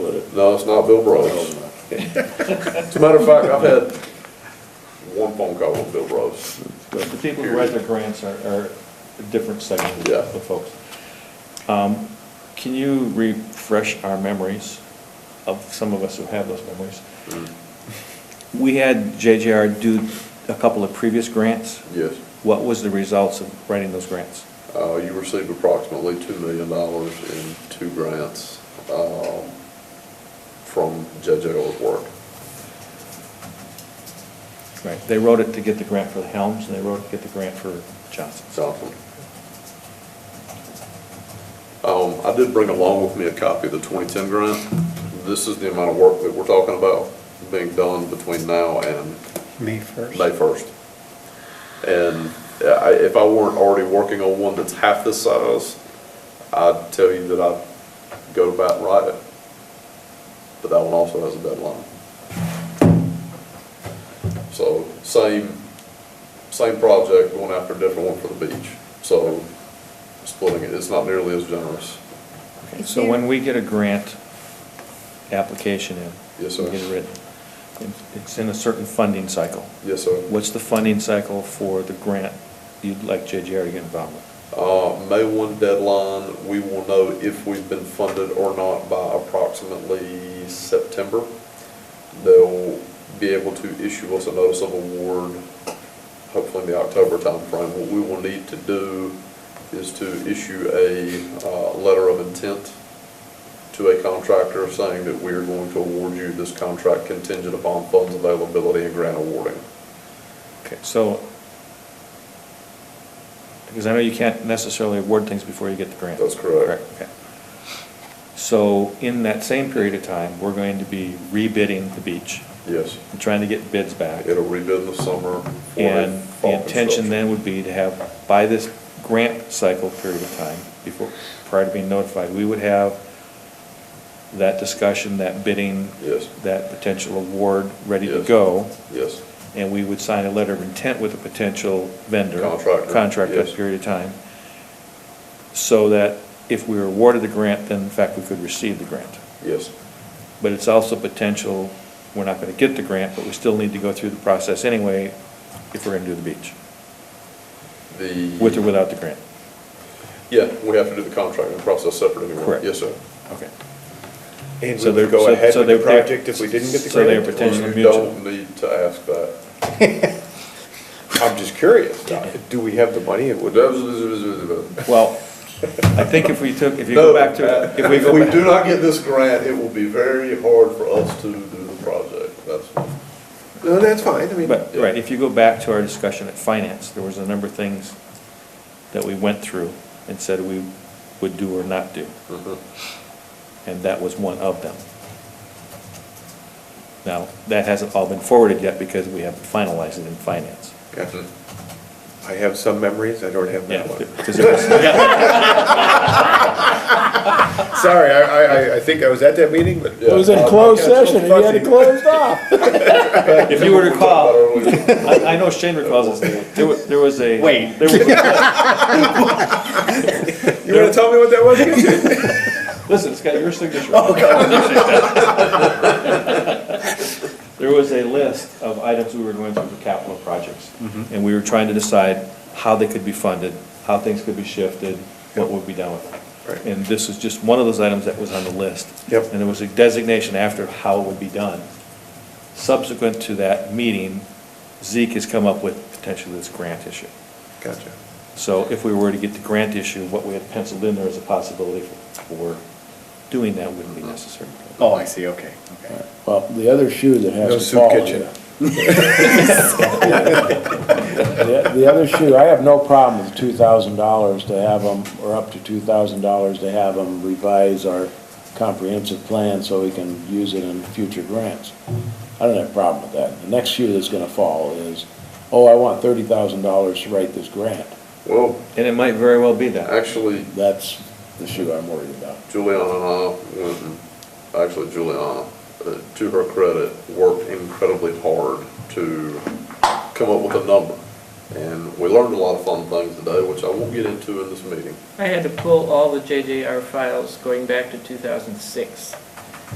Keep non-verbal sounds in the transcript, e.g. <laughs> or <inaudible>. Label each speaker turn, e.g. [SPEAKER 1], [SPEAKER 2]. [SPEAKER 1] No, it's not Bill Brooks. As a matter of fact, I've had one phone call with Bill Brooks.
[SPEAKER 2] The people who write their grants are, are a different section
[SPEAKER 1] Yeah.
[SPEAKER 2] of the folks. Um, Can you refresh our memories of some of us who have those memories?
[SPEAKER 1] Mm-hmm.
[SPEAKER 2] We had JJR do a couple of previous grants.
[SPEAKER 1] Yes.
[SPEAKER 2] What was the results of writing those grants?
[SPEAKER 1] Uh, you received approximately two million dollars in two grants, um, from JJ Orr's work.
[SPEAKER 2] Right, they wrote it to get the grant for the Helms, and they wrote it to get the grant for Johnson.
[SPEAKER 1] Johnson. Um, I did bring along with me a copy of the 2010 grant. This is the amount of work that we're talking about being done between now and
[SPEAKER 3] May first.
[SPEAKER 1] May 1st. And uh, I- if I weren't already working on one that's half this size, I'd tell you that I'd go to bat and write it. But that one also has a deadline. So same, same project, going after a different one for the beach. So splitting it, it's not nearly as generous.
[SPEAKER 2] Okay, So when we get a grant application in.
[SPEAKER 1] Yes, sir.
[SPEAKER 2] we Get it written. it- It's in a certain funding cycle.
[SPEAKER 1] Yes, sir.
[SPEAKER 2] What's the funding cycle for the grant you'd like JGR to get involved with?
[SPEAKER 1] Uh, May one deadline, we will know if we've been funded or not by approximately September. They'll be able to issue us a notice of award, hopefully in the October timeframe. What we will need to do is to issue a, uh, letter of intent to a contractor saying that we are going to award you this contract contingent upon funds availability and grant awarding.
[SPEAKER 2] Okay, so, because I know you can't necessarily award things before you get the grant.
[SPEAKER 1] That's correct.
[SPEAKER 2] Okay. So in that same period of time, we're going to be rebidding the beach
[SPEAKER 1] Yes,
[SPEAKER 2] and trying to get bids back.
[SPEAKER 1] it'll rebid in the summer. for a
[SPEAKER 2] And the
[SPEAKER 1] fall
[SPEAKER 2] intention
[SPEAKER 1] construction.
[SPEAKER 2] then would be to have, by this grant cycle period of time, before, prior to being notified, we would have that discussion, that bidding.
[SPEAKER 1] Yes.
[SPEAKER 2] That potential award ready to
[SPEAKER 1] Yes.
[SPEAKER 2] go,
[SPEAKER 1] Yes.
[SPEAKER 2] and we would sign a letter of intent with a potential vendor.
[SPEAKER 1] Contractor,
[SPEAKER 2] Contract that
[SPEAKER 1] yes.
[SPEAKER 2] period of time. So that if we were awarded the grant, then in fact we could receive the grant.
[SPEAKER 1] Yes,
[SPEAKER 2] But it's also potential, we're not gonna get the grant, but we still need to go through the process anyway if we're gonna do the beach,
[SPEAKER 1] the.
[SPEAKER 2] with or without the grant.
[SPEAKER 1] Yeah, we have to do the contracting process separate anyway.
[SPEAKER 2] Correct.
[SPEAKER 1] Yes, sir.
[SPEAKER 2] Okay.
[SPEAKER 3] And
[SPEAKER 2] So
[SPEAKER 3] we
[SPEAKER 2] they're-
[SPEAKER 3] would go
[SPEAKER 2] so-
[SPEAKER 3] ahead
[SPEAKER 2] so
[SPEAKER 3] with the
[SPEAKER 2] they're- they're-
[SPEAKER 3] project if we didn't get the
[SPEAKER 2] so they're
[SPEAKER 3] grant?
[SPEAKER 2] potential
[SPEAKER 1] You
[SPEAKER 2] mutual.
[SPEAKER 1] don't need to ask that.
[SPEAKER 3] I'm just curious, do we have the money? It would-
[SPEAKER 2] Well, I think if we took, if you go back to, if we go
[SPEAKER 1] If we do
[SPEAKER 2] back,
[SPEAKER 1] not get this grant, it will be very hard for us to do the project. That's,
[SPEAKER 3] No, that's fine, I mean.
[SPEAKER 2] but, right, if you go back to our discussion at finance, there was a number of things that we went through and said we would do or not do,
[SPEAKER 1] Mm-hmm.
[SPEAKER 2] and that was one of them. Now, that hasn't all been forwarded yet because we haven't finalized it in finance.
[SPEAKER 3] Gotcha. I have some memories, I don't have
[SPEAKER 2] Yeah,
[SPEAKER 3] that one.
[SPEAKER 2] 'cause it was- yeah,
[SPEAKER 3] Sorry, I, I, I think I was at that meeting, but. Uh,
[SPEAKER 1] Yeah.
[SPEAKER 4] It was in closed session, you had it closed off.
[SPEAKER 2] If you were to call, <laughs>
[SPEAKER 1] Earlier.
[SPEAKER 2] I, I know Shane recalls this, there was, there was a. Wait. There was,
[SPEAKER 3] You wanna tell me what that was
[SPEAKER 4] <laughs>
[SPEAKER 3] again?
[SPEAKER 2] Listen, it's got your signature.
[SPEAKER 3] Oh,
[SPEAKER 2] on it. <laughs> There was a list of items we were going through for capital projects,
[SPEAKER 3] Mm-hmm.
[SPEAKER 2] and we were trying to decide how they could be funded, how things could be shifted, what would be done with
[SPEAKER 3] Right.
[SPEAKER 2] it. And this is just one of those items that was on the list.
[SPEAKER 3] Yep.
[SPEAKER 2] And there was a designation after how it would be done. Subsequent to that meeting, Zeke has come up with potentially this grant issue.
[SPEAKER 3] Gotcha.
[SPEAKER 2] So if we were to get the grant issue, what we had penciled in there as a possibility for doing that wouldn't be necessary.
[SPEAKER 5] Oh, I see, okay, okay.
[SPEAKER 4] Well, the other shoe that
[SPEAKER 3] No
[SPEAKER 4] has to
[SPEAKER 3] soup
[SPEAKER 4] fall.
[SPEAKER 3] kitchen.
[SPEAKER 4] The the other shoe, I have no problem with two thousand dollars to have them, or up to two thousand dollars to have them revise our comprehensive plan so we can use it in future grants. I don't have a problem with that. The next shoe that's gonna fall is, oh, I want thirty thousand dollars to write this grant.
[SPEAKER 1] Well,
[SPEAKER 2] And it might very well be that.
[SPEAKER 1] actually,
[SPEAKER 4] That's the shoe I'm worried about.
[SPEAKER 1] Juliana and I went, and- uh, actually Juliana, uh, to her credit, worked incredibly hard to come up with a number. And we learned a lot of fun things today, which I won't get into in this meeting.
[SPEAKER 6] I had to pull all the JJR files going back to 2006.